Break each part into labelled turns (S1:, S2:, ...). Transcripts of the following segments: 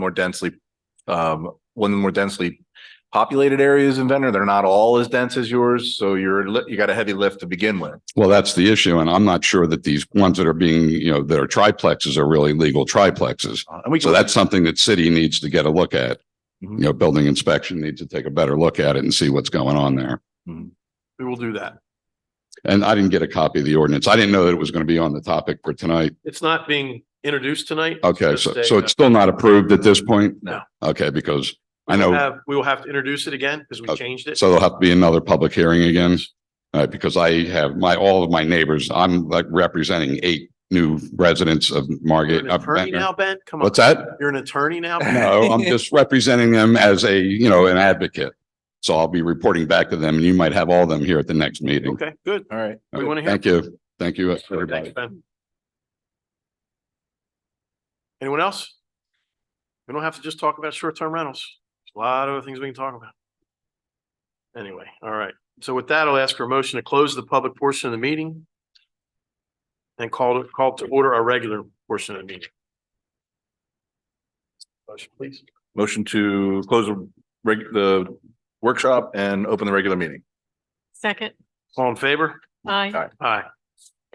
S1: more densely, um, one of the more densely populated areas in Ventnor. They're not all as dense as yours, so you're, li- you got a heavy lift to begin with.
S2: Well, that's the issue. And I'm not sure that these ones that are being, you know, that are triplexes are really legal triplexes.
S1: Uh, And we,
S2: So
S1: can-
S2: that's something that city needs to get a look at. You
S3: Mm-hmm.
S1: Mhm.
S2: know, building inspection needs to take a better look at it and see what's going on there.
S1: we will do that.
S2: And I didn't get a copy of the ordinance. I didn't know that it was going to be on the topic for tonight.
S3: It's not being introduced tonight. It's
S2: Okay,
S3: just
S2: so,
S3: a-
S2: so it's still not approved at this point?
S1: No.
S2: Okay, because I
S3: We'll
S2: know,
S3: have- We will have to introduce it again because we
S2: Okay,
S3: changed it.
S2: Oh. so there'll have to be another public hearing again. All right, because I have my, all of my neighbors, I'm like representing eight new residents of
S3: You're
S2: Margate.
S3: an
S2: of
S3: attorney
S2: Ventnor.
S3: now, Ben? Come on.
S2: What's that?
S3: You're an attorney now?
S2: No, I'm just representing them as a, you know, an advocate. So I'll be reporting back to them and you might have all of them here at the next meeting.
S3: Okay, good.
S1: All right.
S3: We want to hear.
S2: Thank you. Thank you,
S3: Thanks,
S2: everybody.
S3: Ben. Anyone else? We don't have to just talk about short-term rentals. There's A lot of other things we can talk about. Anyway, all right. So with that, I'll ask for a motion to close the public portion of the meeting and call, to call to order our regular portion of the meeting. Motion, please.
S1: Motion to close the reg- the workshop and open the regular meeting.
S4: Second,
S3: All in favor?
S4: aye.
S3: Aye.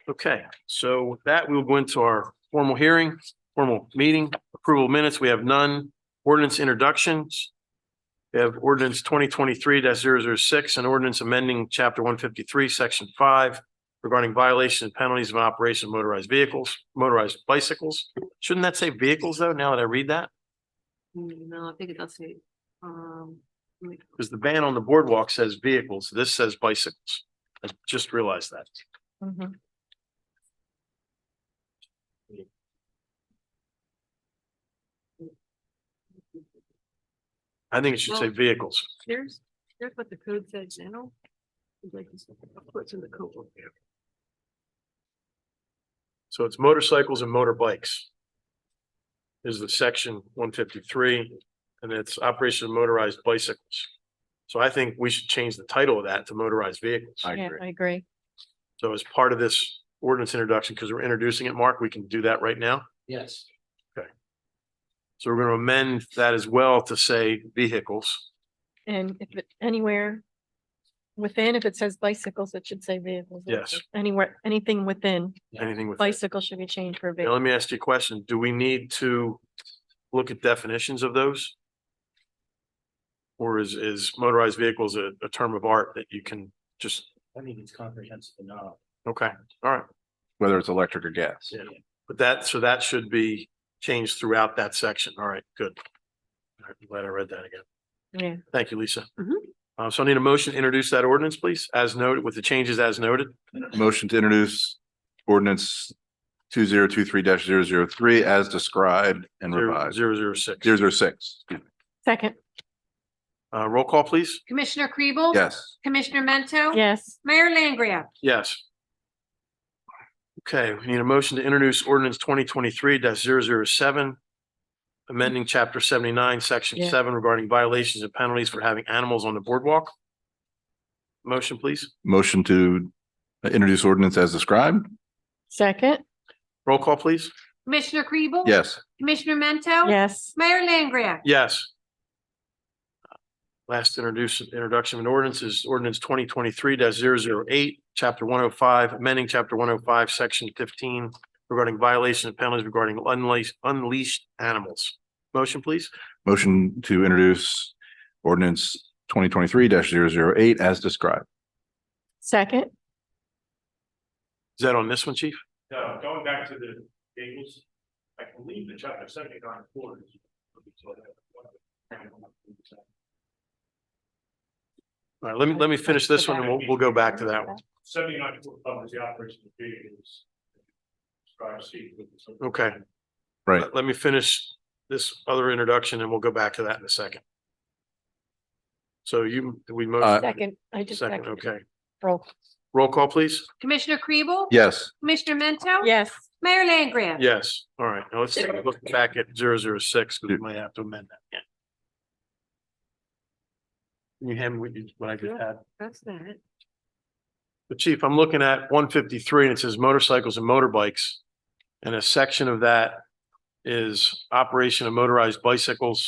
S3: Okay, so with that, we'll go into our formal hearing, formal meeting, approval of minutes. We have none. Ordinance introductions. We have ordinance twenty twenty-three 6 and ordinance amending chapter one fifty-three, section five regarding violations and penalties of operation of motorized vehicles, motorized bicycles. Shouldn't that say vehicles though, now that I read that?
S4: Mm, No, I think it does say, um,
S3: Because the ban on the boardwalk says vehicles. This says bicycles. I just realized that.
S4: mhm.
S3: I think it should say vehicles.
S4: here's, here's what the code says now. I'd like to see What's in the code?
S3: So it's motorcycles and motorbikes. Is the section one fifty-three, and it's operation of motorized bicycles. So I think we should change the title of that to motorized vehicles.
S1: I
S4: Yeah,
S1: agree.
S4: I agree.
S3: So as part of this ordinance introduction, because we're introducing it, Mark, we can do that right now.
S5: Yes,
S3: So we're gonna amend that as well to say vehicles.
S4: And if it, anywhere within, if it says bicycles, it should say vehicles.
S3: Yes.
S4: Anywhere, anything within,
S3: Anything with.
S4: bicycle should be changed for
S3: Now,
S4: vehicle.
S3: let me ask you a question. Do we need to look at definitions of those? Or is, is motorized vehicles a, a term of art that you can just,
S5: I think it's comprehensive enough.
S3: okay, all right.
S1: Whether it's electric or gas.
S3: Yeah, but that, so that should be changed throughout that section. All right, good. All right, I'm Glad I read that again.
S4: Yeah.
S3: Thank you, Lisa.
S4: Mhm.
S3: Uh, so I need a motion to introduce that ordinance, please, as noted, with the changes as noted.
S1: Motion to introduce ordinance two zero two three 3 as described and
S3: Zero,
S1: revised.
S3: zero, zero, six.
S1: Zero zero six,
S4: Second,
S3: Uh, roll call, please.
S6: Commissioner Kribel?
S1: yes.
S6: Commissioner Mento?
S4: yes,
S6: Mayor Langria?
S3: Yes. Okay, we need a motion to introduce ordinance twenty twenty-three 7 amending chapter seventy-nine, section
S4: Yeah.
S3: seven regarding violations and penalties for having animals on the boardwalk. Motion, please.
S1: Motion to introduce ordinance as described,
S4: second,
S3: Roll call, please.
S6: Commissioner Kribel?
S1: yes.
S6: Commissioner Mento?
S4: yes,
S6: Mayor Langria?
S3: Yes. Last introduce, introduction of an ordinance is ordinance twenty twenty-three 8 chapter one oh five, amending chapter one oh five, section fifteen regarding violation and penalties regarding unleashed, unleashed animals. Motion, please.
S1: Motion to introduce ordinance twenty twenty-three 8 as described.
S4: second,
S3: Is that on this one, chief?
S7: No, going back to the tables, I believe the chapter seventy-nine quarters.
S3: All right, let me, let me finish this one and we'll, we'll go back to that one.
S7: Seventy-nine foot covers the operation of vehicles. Drive seat.
S3: Okay.
S1: Right.
S3: Let- Let me finish this other introduction and we'll go back to that in a second. So you, we.
S1: Uh,
S3: motion
S4: second, I just.
S3: Second,
S4: seconded.
S3: okay.
S4: Roll,
S3: Roll call, please.
S6: Commissioner Kribel?
S1: Yes,
S6: Commissioner Mento?
S4: yes,
S6: Mayor Langria?
S3: Yes, all right, now let's take a look back at zero zero six, because we might have to amend that. again. Can you hand me what you- what I just had?
S4: that's that.
S3: But chief, I'm looking at one fifty-three and it says motorcycles and motorbikes. And a section of that is operation of motorized bicycles